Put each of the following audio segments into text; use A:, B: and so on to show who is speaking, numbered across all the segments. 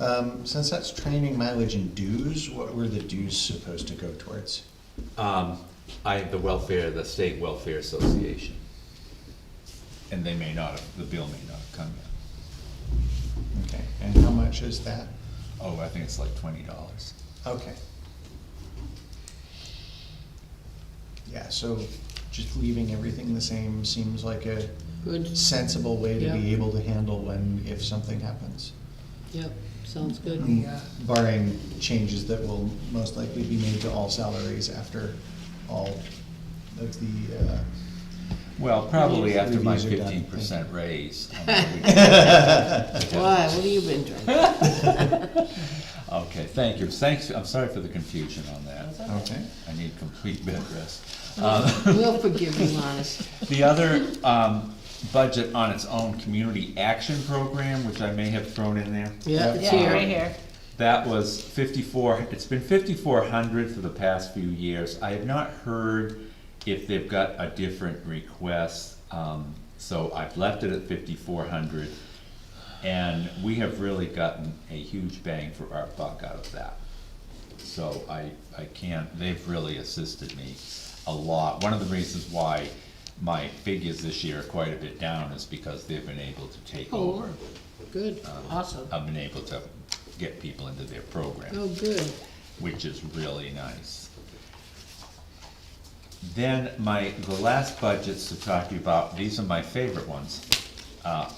A: Um, since that's training mileage and dues, what were the dues supposed to go towards?
B: Um, I, the welfare, the state welfare association.
C: And they may not have, the bill may not have come yet.
A: Okay, and how much is that?
C: Oh, I think it's like twenty dollars.
A: Okay. Yeah, so just leaving everything the same seems like a
D: Good,
A: sensible way to be
D: Yeah.
A: able to handle when, if something happens.
D: yep, sounds good.
A: Barring changes that will most likely be made to all salaries after all of the, uh,
C: Well, probably after my
A: Reviews are done.
C: fifteen percent raise.
D: Why, what have you been drinking?
C: Okay, thank you. Thanks, I'm sorry for the confusion on that.
A: okay.
C: I need complete bed rest. Um,
D: We'll forgive you, honest.
C: The other, um, budget on its own, community action program, which I may have thrown in there.
D: Yeah, it's
E: Yeah, right
D: here.
E: here.
C: That was fifty-four, it's been fifty-four hundred for the past few years. I have not heard if they've got a different request, um, so I've left it at fifty-four hundred. And we have really gotten a huge bang for our buck out of that. So I, I can't, they've really assisted me a lot. One of the reasons why my figures this year are quite a bit down is because they've been able to take
D: Oh,
C: over.
D: good, awesome.
C: I've been able to get people into their program
D: Oh, good.
C: which is really nice. Then my, the last budgets to talk to you about, these are my favorite ones, uh,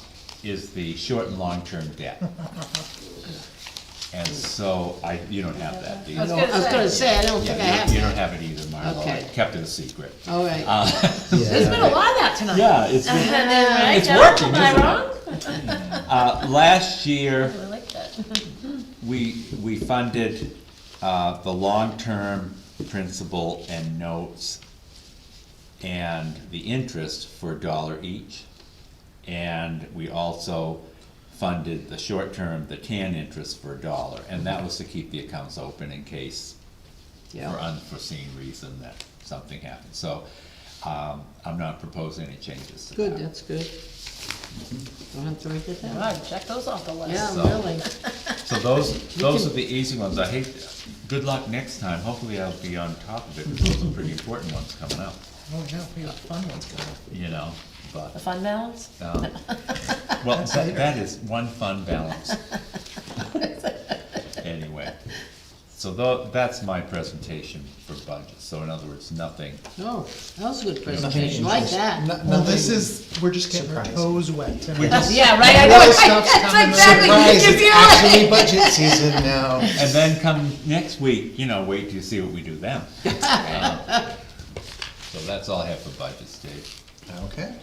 C: is the short and long-term debt. And so I, you don't have that, do you?
D: I
E: was
D: don't-
E: gonna
D: I was
E: say.
D: gonna say, I don't think I
C: Yeah, you- you
D: have.
C: don't have it either, Marlo, I
D: Okay.
C: kept it a secret.
D: All right,
E: There's been a lot of that tonight.
C: Yeah, it's, been-
E: Right,
C: It's
E: Joe?
C: working,
E: Am
C: isn't it?
E: I wrong?
C: uh, last year,
E: I like that.
C: we, we funded, uh, the long-term principal and notes and the interest for a dollar each. And we also funded the short-term, the tan interest for a dollar, and that was to keep the accounts open in case for
D: yeah,
C: unforeseen reason that something happened. So, um, I'm not proposing any changes to that.
D: good, that's good. Don't have to write that down.
E: Wow, check those off the list.
D: Yeah,
C: So-
D: really.
C: So those,
D: You
C: those
D: can-
C: are the easy ones, I hate, good luck next time, hopefully I'll be on top of it, because those are pretty important ones coming up,
E: Oh, no, we got fun ones going.
C: you know,
E: The
C: but,
E: fun balance?
C: um, well, that, that is one fun balance. Anyway, so tho, that's my presentation for budget, so in other words, nothing,
D: No, that was a good presentation, like that.
F: Well,
A: Nothing
F: this is, we're just getting our
A: Surprise.
F: toes wet
C: we
F: tonight.
C: just,
E: Yeah, right, I know,
A: Well,
E: right,
A: stuff's coming.
E: that's exactly, you
A: Surprise,
E: can
A: it's
E: feel it.
A: actually budget season now.
C: and then come next week, you know, wait till you see what we do then. Um, So that's all I have for budget, Dave.
A: Okay.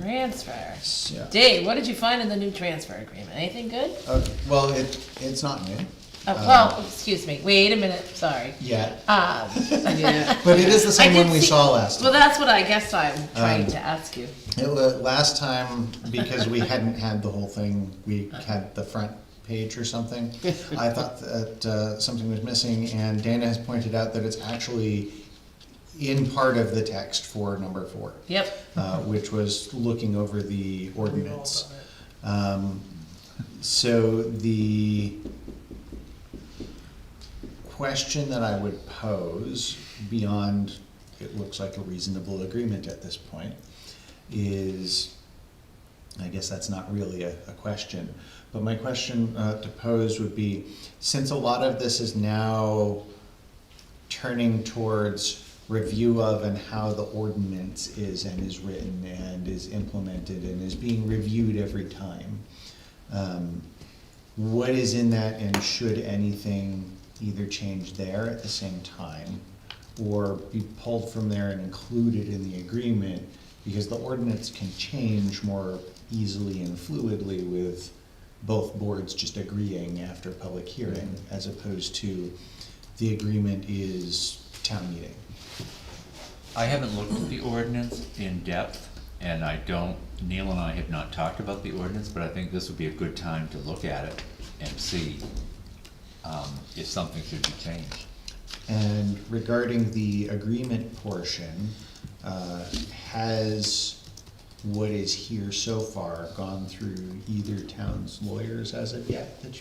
E: Transfer.
A: So,
E: Dave, what did you find in the new transfer agreement? Anything good?
A: okay, Uh, well, it, it's not new
E: Oh,
C: Uh,
E: well, excuse me, wait a minute, sorry.
A: yet,
E: Um,
D: Yeah,
A: but it is the same
E: I did
A: one we
E: see-
A: saw last
E: Well,
A: time.
E: that's what I guess
C: um,
E: I'm trying to ask you.
A: It wa- last time, because we hadn't had the whole thing, we had the front page or something. I thought that, uh, something was missing and Dana has pointed out that it's actually in part of the text for number four.
E: Yep.
A: uh, which was looking over the ordinance. Um, So the question that I would pose beyond, it looks like a reasonable agreement at this point, is, I guess that's not really a, a question, but my question uh, to pose would be, since a lot of this is now turning towards review of and how the ordinance is and is written and is implemented and is being reviewed every time. Um, What is in that and should anything either change there at the same time or be pulled from there and included in the agreement? Because the ordinance can change more easily and fluidly with both boards just agreeing after public hearing as opposed to the agreement is town meeting.
C: I haven't looked at the ordinance in depth, and I don't, Neil and I have not talked about the ordinance, but I think this would be a good time to look at it and see, um, if something should be changed.
A: And regarding the agreement portion, uh, has what is here so far gone through either town's lawyers as of yet that you